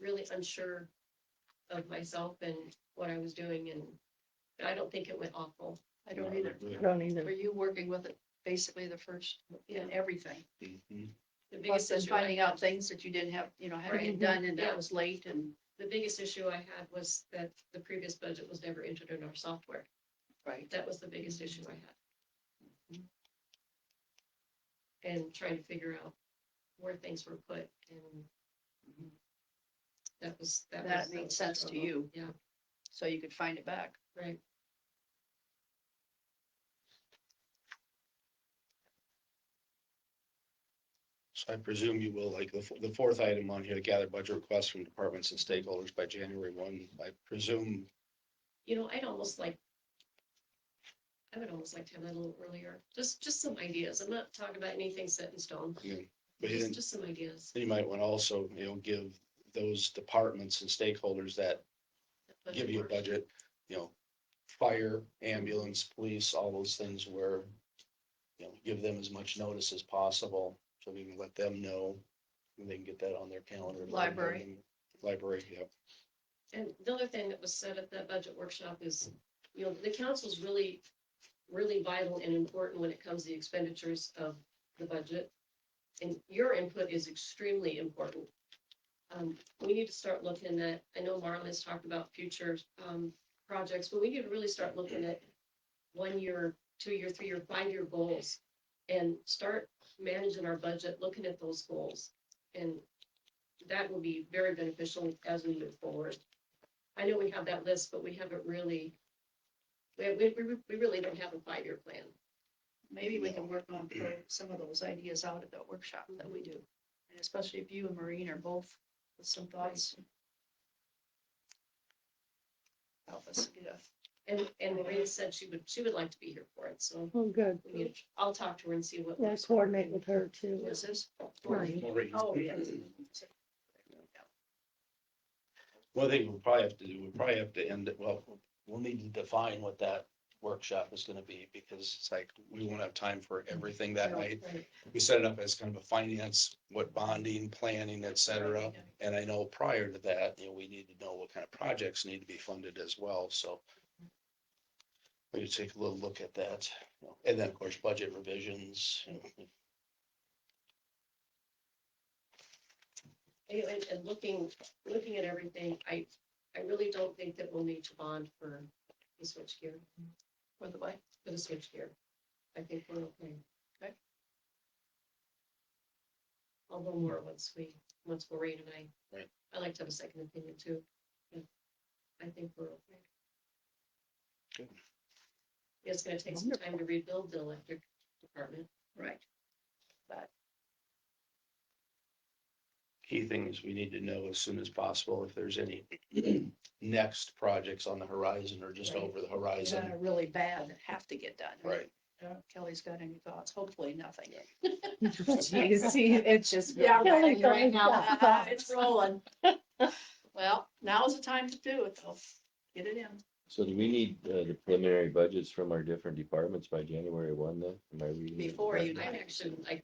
really unsure of myself and what I was doing and I don't think it went awful. I don't either. Don't Were either. you working with it basically the first, in yeah, everything. Mhm. the biggest Plus then issue, I- finding out things that you didn't have, you know, Right. hadn't done and Yeah. that was late and, the biggest issue I had was that the previous budget was never entered in our software. right. That was the biggest issue I had. And trying to figure out where things were put and Mhm. that was, that was. That made was the sense to struggle. you. Yeah, So you could find it back. right. So I presume you will, like, the, f- the fourth item on here, gather budget requests from departments and stakeholders by January one. I presume, You know, I'd almost like, I would almost like to have that a little earlier, just, just some ideas. I'm not talking about anything set in stone. I mean, but Just, then just some ideas. you might want to also, you know, give those departments and stakeholders that Budget give you a work. budget, you know, fire, ambulance, police, all those things where, you know, give them as much notice as possible, so we can let them know, and they can get that on their calendar. Library. Library, yeah. And the other thing that was said at that budget workshop is, you know, the council's really, really vital and important when it comes to the expenditures of the budget. And your input is extremely important. Um, we need to start looking at, I know Marlon has talked about future, um, projects, but we need to really start looking at one year, two year, three year, five year goals and start managing our budget, looking at those goals. And that will be very beneficial as we move forward. I know we have that list, but we haven't really, we, we, we- we really don't have a five-year plan. Maybe we can work on throwing some of those ideas out at that workshop that we do. And especially if you and Maureen are both with some thoughts. Help us get a And, and Maria said she would, she would like to be here for it, so Oh, good. we need, I'll talk to her and see what. Yeah, works. coordinate with her Who too. is this? Maureen. Oh, yes. One thing we'll probably have to do, we'll probably have to end it, well, we'll need to define what that workshop is gonna be, because it's like, we won't have time for everything that night. Right. We set it up as kind of a finance, what bonding, planning, et cetera. And I know prior to that, you know, we need to know what kind of projects need to be funded as well, so. We could take a little look at that, you know, and then, of course, budget revisions, you know, Anyway, And, and looking, looking at everything, I, I really don't think that we'll need to bond for the switchgear, For the way. for the switchgear. I think we're okay. Okay. Although more once we, once Maureen and I. Right. I like to have a second opinion too. Yeah. I think we're okay. Good. It's gonna take some time to rebuild the electric department. Right. key thing is we need to know as soon as possible if there's any next projects on the horizon or just Right. over the Yeah, horizon. Really bad that have to get done. Right, Uh, Kelly's got any thoughts? Hopefully nothing. You see, it's just. Yeah, rolling Kelly's right always now. got thoughts. It's rolling. Well, now's the time to do it though. Get it in. So do we need uh, the preliminary budgets from our different departments by January one then? Am I reading? it Before you correctly? I'm actually like,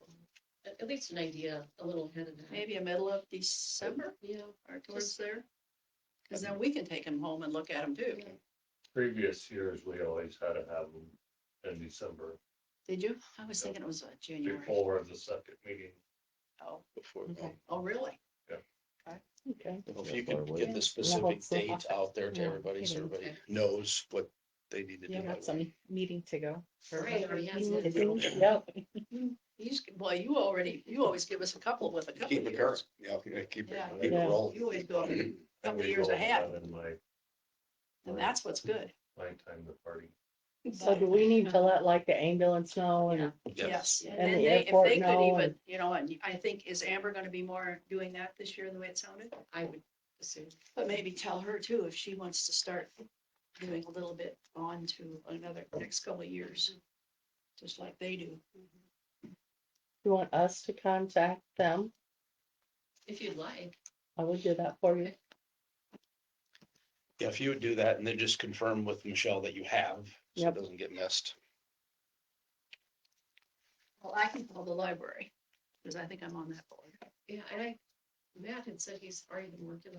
at, at least an idea, a little ahead of that. Maybe a middle of December Yeah, or towards there. Cause then we can take them home and look at them too. Yeah. previous years, we always had to have them in December Did you? I was thinking it was uh, January. before the second meeting. Oh, before, Okay. oh, really? Okay. well, if you could get the Yeah, specific that's- date out there to Yeah, everybody, so okay. everybody knows what they need to do. You by got when. some meeting to go. or Right, or yes, meeting to it's- do. Yep. He's, well, you already, you always give us a couple with a couple Keep of it current, years. yeah, okay, keep it, Yeah. keep it Yeah. rolling. You always go a I couple always years rolled ahead. that In my, And that's what's good. my time to party. So do we need to let like the ambulance know Yeah. and, Yes, and And then the they, if airport they could now, even, and- you know, and I think, is Amber gonna be more doing that this year, the way it sounded? I would assume. But maybe tell her too, if she wants to start doing a little bit on to another, next couple of years, just like they do. you want us to contact them? If you'd like, I would do that for you. Yeah, if you would do that and then just confirm with Michelle that you have, so Yep. it doesn't get missed. Well, I can call the library, because I think I'm on that board. yeah, and I, Matt had said he's already been working